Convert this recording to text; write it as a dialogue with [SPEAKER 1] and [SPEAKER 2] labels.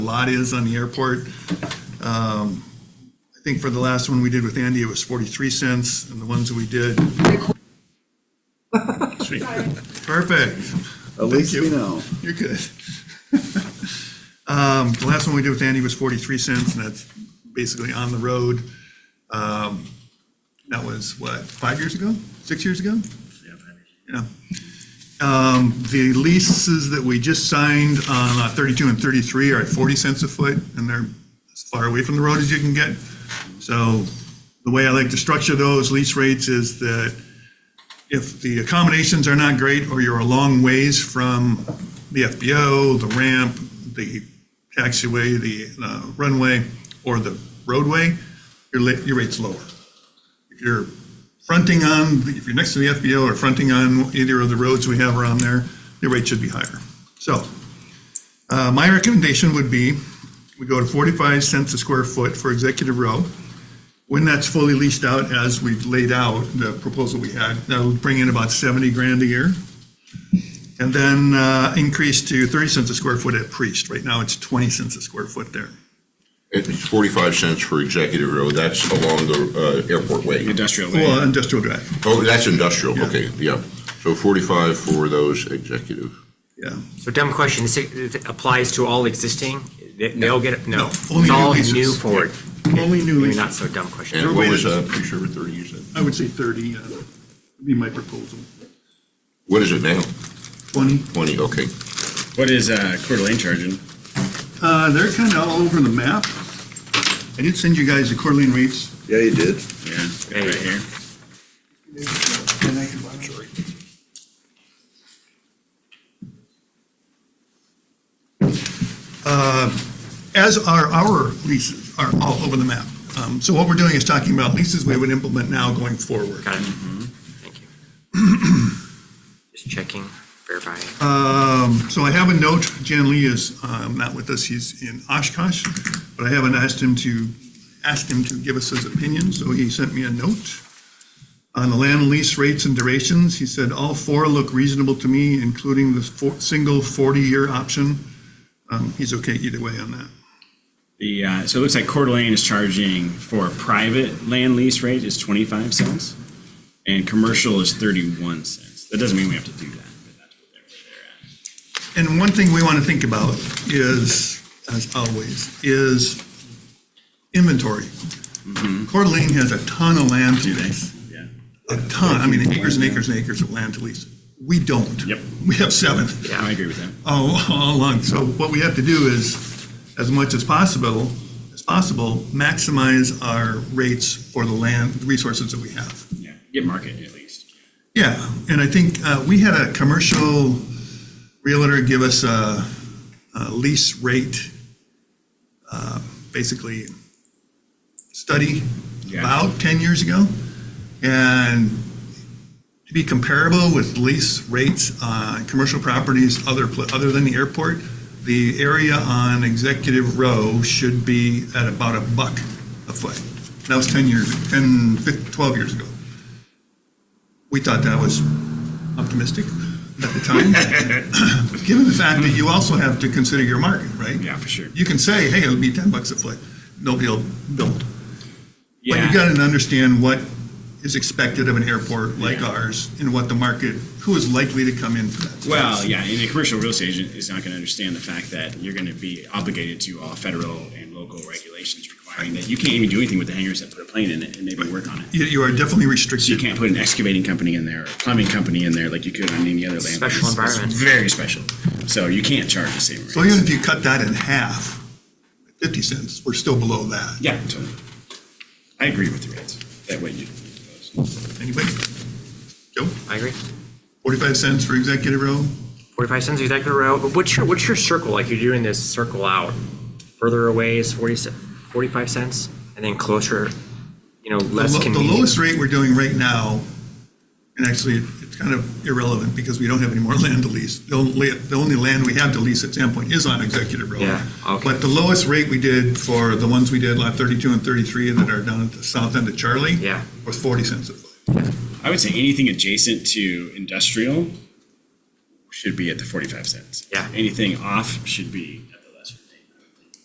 [SPEAKER 1] lot is on the airport. Um, I think for the last one we did with Andy, it was 43 cents, and the ones that we did. Perfect,
[SPEAKER 2] At least
[SPEAKER 1] you.
[SPEAKER 2] we know.
[SPEAKER 1] you're good. Um, The last one we did with Andy was 43 cents, and that's basically on the road. Um, That was, what, five years ago? Six years ago? Yeah. Um, The leases that we just signed on lot 32 and 33 are at 40 cents a foot, and they're as far away from the road as you can get. So the way I like to structure those lease rates is that if the accommodations are not great, or you're a long ways from the FBO, the ramp, the taxiway, the uh, runway, or the roadway, your li- your rate's lower. If you're fronting on, if you're next to the FBO or fronting on either of the roads we have around there, the rate should be higher. So, uh, my recommendation would be, we go to 45 cents a square foot for executive row. When that's fully leased out, as we've laid out, the proposal we had, that'll bring in about 70 grand a year. And then uh, increase to 30 cents a square foot at Priest. Right now, it's 20 cents a square foot there.
[SPEAKER 3] It's 45 cents for executive road, that's along the uh, airport way.
[SPEAKER 4] Industrial
[SPEAKER 1] Well,
[SPEAKER 4] land.
[SPEAKER 1] industrial drive,
[SPEAKER 3] Oh, that's industrial,
[SPEAKER 1] Yeah.
[SPEAKER 3] okay, yeah. So 45 for those executive.
[SPEAKER 1] yeah.
[SPEAKER 5] So dumb question, this it applies to all existing? They- They'll get, it?
[SPEAKER 1] No,
[SPEAKER 5] no, it's
[SPEAKER 1] only new
[SPEAKER 5] all
[SPEAKER 1] leases.
[SPEAKER 5] new forward.
[SPEAKER 1] Only new
[SPEAKER 5] Maybe
[SPEAKER 1] leases.
[SPEAKER 5] not so dumb question.
[SPEAKER 3] And what was, uh, pretty sure 30 you said?
[SPEAKER 1] I would say 30 uh, would be my proposal.
[SPEAKER 3] What is it now?
[SPEAKER 1] 20,
[SPEAKER 3] 20, okay.
[SPEAKER 4] What is uh, Coeur d'Alene charging?
[SPEAKER 1] Uh, they're kind of all over the map. I did send you guys the Coeur d'Alene rates.
[SPEAKER 2] Yeah, you did.
[SPEAKER 4] Yeah, right here.
[SPEAKER 1] Uh, As are our leases, are all over the map. Um, So what we're doing is talking about leases we would implement now going forward.
[SPEAKER 5] Got it. Thank you. Just checking, verifying.
[SPEAKER 1] Um, So I have a note, Jan Lee is um, not with us, he's in Oshkosh, but I haven't asked him to, asked him to give us his opinion, so he sent me a note. On the land lease rates and durations, he said, all four look reasonable to me, including the four- single 40-year option. Um, He's okay either way on that.
[SPEAKER 4] The, uh, so it looks like Coeur d'Alene is charging for a private land lease rate is 25 cents, and commercial is 31 cents. That doesn't mean we have to do that. but that's what they're- where
[SPEAKER 1] And one thing we want to think about is, as always, is inventory. Coeur d'Alene has a ton of land to lease.
[SPEAKER 4] they're at.
[SPEAKER 1] a ton, I mean, acres and acres and acres of land to lease. We don't.
[SPEAKER 4] Yep.
[SPEAKER 1] We have seven
[SPEAKER 4] Yeah, I agree with that.
[SPEAKER 1] all, all along. So what we have to do is, as much as possible, as possible, maximize our rates for the land, the resources that we have.
[SPEAKER 4] Yeah, get market at least.
[SPEAKER 1] Yeah, and I think uh, we had a commercial realtor give us a a lease rate, uh, basically, study
[SPEAKER 4] Yeah.
[SPEAKER 1] about 10 years ago. And to be comparable with lease rates on commercial properties other, pla- other than the airport, the area on Executive Row should be at about a buck a foot. That was 10 years, 10, 15, 12 years ago. We thought that was optimistic at the time. Given the fact that you also have to consider your market, right?
[SPEAKER 4] Yeah, for sure.
[SPEAKER 1] You can say, hey, it'll be 10 bucks a foot. Nobody will build. But you
[SPEAKER 4] Yeah,
[SPEAKER 1] gotta understand what is expected of an airport like
[SPEAKER 4] Yeah.
[SPEAKER 1] ours and what the market, who is likely to come in for that.
[SPEAKER 4] well, yeah, and a commercial real estate agent is not going to understand the fact that you're going to be obligated to all federal and local regulations requiring that you can't even do anythanything with the hangars that put a plane in it and maybe work on it.
[SPEAKER 1] You, you are definitely
[SPEAKER 4] So you
[SPEAKER 1] restricted.
[SPEAKER 4] can't put an excavating company in there, or a plumbing company in there like you could on any other land.
[SPEAKER 5] Special
[SPEAKER 4] It's- it's
[SPEAKER 5] environment.
[SPEAKER 4] Very special. So you can't charge the same rate.
[SPEAKER 1] So even if you cut that in half, fifty cents, we're still below that.
[SPEAKER 4] Yeah, totally. I agree with the rates, that way you.
[SPEAKER 1] Anybody? Joe,
[SPEAKER 5] I agree.
[SPEAKER 1] forty-five cents for executive row?
[SPEAKER 5] 45 cents exactly row, but what's your, what's your circle? Like you're doing this circle out, further away is 40, ce- 45 cents, and then closer, you know,
[SPEAKER 1] The
[SPEAKER 5] less
[SPEAKER 1] lo- The
[SPEAKER 5] convenient.
[SPEAKER 1] lowest rate we're doing right now, and actually, it- it's kind of irrelevant because we don't have any more land to lease. The only, the only land we have to lease at Sandpoint is on Executive Road.
[SPEAKER 5] Yeah, okay.
[SPEAKER 1] But the lowest rate we did for the ones we did, lot 32 and 33 that are down at the south end of Charlie.
[SPEAKER 5] Yeah.
[SPEAKER 1] Was 40 cents a foot.
[SPEAKER 4] I would say anything adjacent to industrial should be at the forty-five cents.
[SPEAKER 5] Yeah.
[SPEAKER 4] Anything off should be